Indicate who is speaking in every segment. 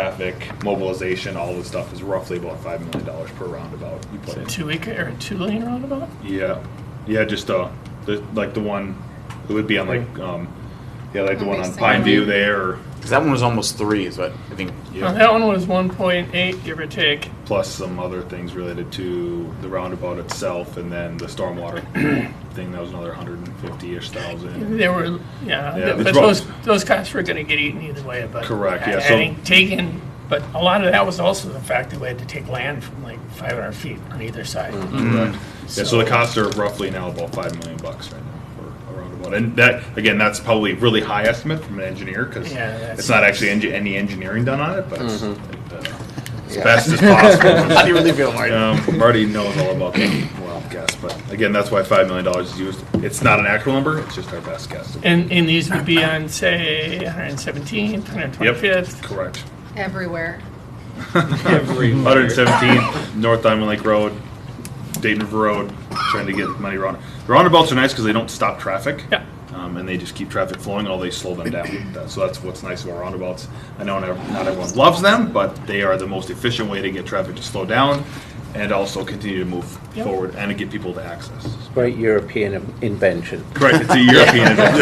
Speaker 1: traffic, mobilization, all this stuff is roughly about five million dollars per roundabout. You put in.
Speaker 2: Two acre or two lane roundabout?
Speaker 1: Yeah, yeah, just uh, the, like the one, it would be on like, um, yeah, like the one on Pine View there,
Speaker 3: Because that one was almost three, is what I think.
Speaker 2: Now,
Speaker 1: yeah.
Speaker 2: that one was one point eight, give or take.
Speaker 1: Plus some other things related to the roundabout itself and then the stormwater thing, that was another hundred and fifty-ish thousand.
Speaker 2: There were,
Speaker 1: Yeah,
Speaker 2: yeah, th- but
Speaker 1: that's rough.
Speaker 2: those, those costs were gonna get eaten either way, but.
Speaker 1: Correct, yeah,
Speaker 2: I- I
Speaker 1: so-
Speaker 2: think taking, but a lot of that was also the fact that we had to take land from like five hundred feet on either side. Mm-hmm.
Speaker 1: Correct. Mm-hmm. Yeah, so the costs are roughly now about five million bucks right now for a roundabout. And that, again, that's probably a really high estimate from an engineer, cause
Speaker 2: Yeah, that's-
Speaker 1: it's not actually engi- any engineering done on it, but it's like the- as best as possible.
Speaker 3: Mm-hmm. How do you really feel, Marty?
Speaker 1: Um, Marty knows all about that wild guess, but again, that's why five million dollars is used. It's not an actual number; it's just our best guess.
Speaker 2: And, and these would be on, say, one hundred seventeenth, one hundred twenty-fifth.
Speaker 1: Correct.
Speaker 4: everywhere.
Speaker 1: One hundred seventeenth North Diamond Lake Road, Dayton River Road, trying to get money round. The roundabouts are nice because they don't stop traffic.
Speaker 2: Yeah.
Speaker 1: Um, and they just keep traffic flowing, although they slow them down. That- So that's what's nice about roundabouts. I know not not everyone loves them, but they are the most efficient way to get traffic to slow down and also continue to move
Speaker 2: Yep.
Speaker 1: forward and to get people to access.
Speaker 5: Great European invention.
Speaker 1: Correct, it's a European event.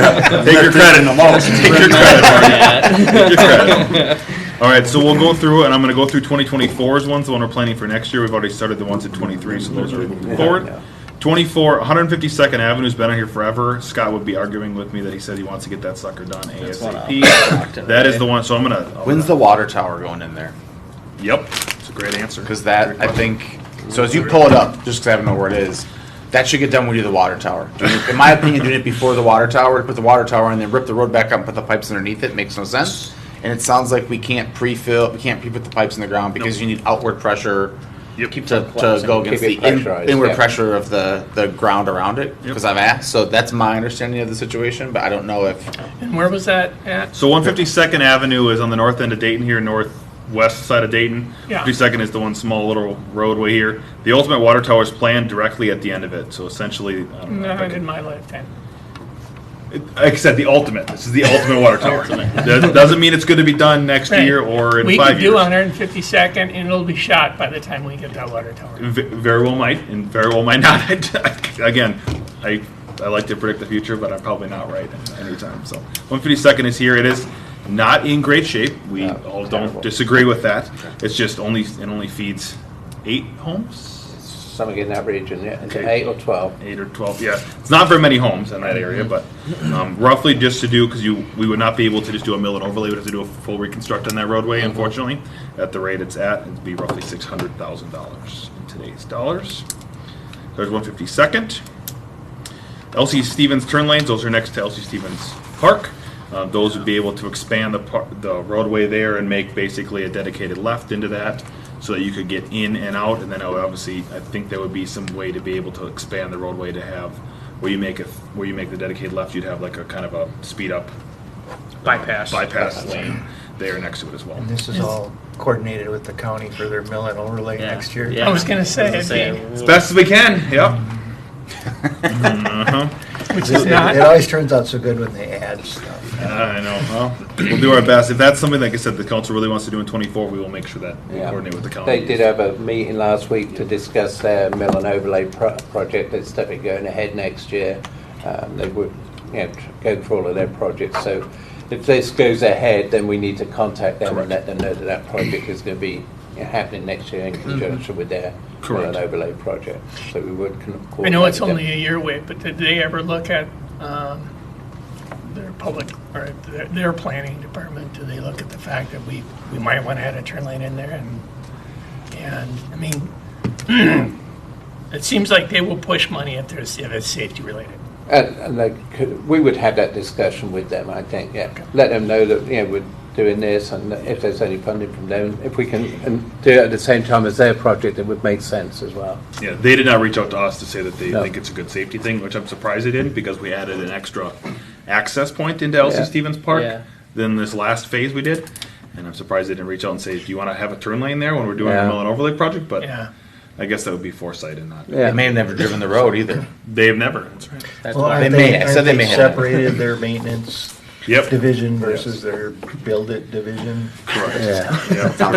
Speaker 1: Take your credit, take your credit, Marty. Take your credit. All right, so we'll go through, and I'm gonna go through 2024's ones, the one we're planning for next year. We've already started the ones at 23, so those are moving forward.
Speaker 5: Yeah.
Speaker 1: 24, 152nd Avenue's been out here forever. Scott would be arguing with me that he said he wants to get that sucker done ASAP. That is the one, so I'm gonna. I'm
Speaker 3: When's the
Speaker 1: gonna-
Speaker 3: water tower going in there?
Speaker 1: Yep, it's a great answer.
Speaker 3: Because that, I think, so as you pull it up, just because I don't know where it is, that should get done when you do the water tower. Doing it- In my opinion, doing it before the water tower, put the water tower in, then rip the road back up, and put the pipes underneath it, makes no sense. And it sounds like we can't pre-fill, we can't pre-put the pipes in the ground because you need outward pressure
Speaker 1: Yep.
Speaker 3: to, to go against the
Speaker 5: Keep it
Speaker 3: in-
Speaker 5: pressurized,
Speaker 3: inward
Speaker 5: yeah.
Speaker 3: pressure of the, the ground around it.
Speaker 1: Yep.
Speaker 3: Because I've asked, so that's my understanding of the situation, but I don't know if,
Speaker 2: And where was that at?
Speaker 1: So 152nd Avenue is on the north end of Dayton here, northwest side of Dayton.
Speaker 2: Yeah.
Speaker 1: 52nd is the one small little roadway here. The ultimate water tower is planned directly at the end of it. So essentially, I don't know. if I
Speaker 2: Not
Speaker 1: could-
Speaker 2: in my lifetime.
Speaker 1: Like I said, the ultimate. This is the ultimate water tower. That doesn't mean it's going to be done next
Speaker 2: Right.
Speaker 1: year or in
Speaker 2: We
Speaker 1: five
Speaker 2: could
Speaker 1: years.
Speaker 2: do one hundred fifty-second and it'll be shot by the time we get that water tower.
Speaker 1: V- very well might, and very well might not. Again, I I like to predict the future, but I'm probably not right anytime. So 152nd is here. It is not in great shape. We
Speaker 5: No,
Speaker 1: all
Speaker 5: terrible.
Speaker 1: don't disagree with that. It's just only it only feeds eight homes,
Speaker 5: Something in that region, yeah. Is it
Speaker 1: Okay.
Speaker 5: eight or 12?
Speaker 1: eight or twelve. Yeah, it's not very many homes in that area, but um, roughly just to do because you we would not be able to just do a mill and overlay. We'd have to do a full reconstruct on that roadway. Unfortunately, at the rate it's at, it'd be roughly six hundred thousand dollars in today's dollars. There's 152nd. LC Stevens turn lanes, those are next to LC Stevens Park. Uh, Those would be able to expand the par- the roadway there and make basically a dedicated left into that so that you could get in and out. And then I would obviously, I think there would be some way to be able to expand the roadway to have, where you make a, where you make the dedicated left, you'd have like a kind of a speed up. Bypass. Bypass lane there next to it as well.
Speaker 6: And this is all coordinated with the county for their mill and overlay next year?
Speaker 2: I was gonna say, it'd be-
Speaker 1: As best as we can, yep. Uh-huh.
Speaker 2: which
Speaker 6: It
Speaker 2: is not.
Speaker 6: it always turns out so good when they add stuff.
Speaker 1: I know. Well, we'll do our best. If that's something, like I said, the council really wants to do in 24, we will make sure that we
Speaker 5: Yeah.
Speaker 1: coordinate with the county.
Speaker 5: They did have a meeting last week to discuss their mill and overlay pro- project that's definitely going ahead next year. Um, They were, you know, tr- going for all of their projects. So if this goes ahead, then we need to contact them and let them know that that project is going to be you know, happening next year
Speaker 2: Mm-hmm.
Speaker 5: in conjunction with their mill
Speaker 1: Correct.
Speaker 5: and overlay project. So we would. con-
Speaker 2: I know it's
Speaker 5: coordinate with them.
Speaker 2: only a year away, but did they ever look at um, their public, or their- their planning department? Do they look at the fact that we, we might want to add a turn lane in there? And, and, I mean, it seems like they will push money if there's, if it's safety related.
Speaker 5: And, and they could, we would have that discussion with them, I think, yeah. Let them know that, you know, we're doing this and that if there's any funding from them, if we can and do it at the same time as their project, it would make sense as well.
Speaker 1: Yeah, they did not reach out to us to say that they
Speaker 5: No.
Speaker 1: think it's a good safety thing, which I'm surprised they didn't because we added an extra access point into LC
Speaker 5: Yeah.
Speaker 1: Stevens Park
Speaker 7: Yeah.
Speaker 1: than this last phase we did. And I'm surprised they didn't reach out and say, "Do you want to have a turn lane there when we're doing
Speaker 5: Yeah.
Speaker 1: our mill and overlay project?" But
Speaker 2: Yeah.
Speaker 1: I guess that would be foresight and not.
Speaker 3: they
Speaker 5: Yeah.
Speaker 3: may have never driven the road either.
Speaker 1: They have never. That's right.
Speaker 7: That's
Speaker 6: Well,
Speaker 7: why.
Speaker 6: aren't
Speaker 3: They may- I said
Speaker 6: aren't
Speaker 3: they may have.
Speaker 6: Separated their maintenance
Speaker 1: Yep.
Speaker 6: division versus their build it division.
Speaker 1: Correct.
Speaker 6: Yeah.
Speaker 1: Yep.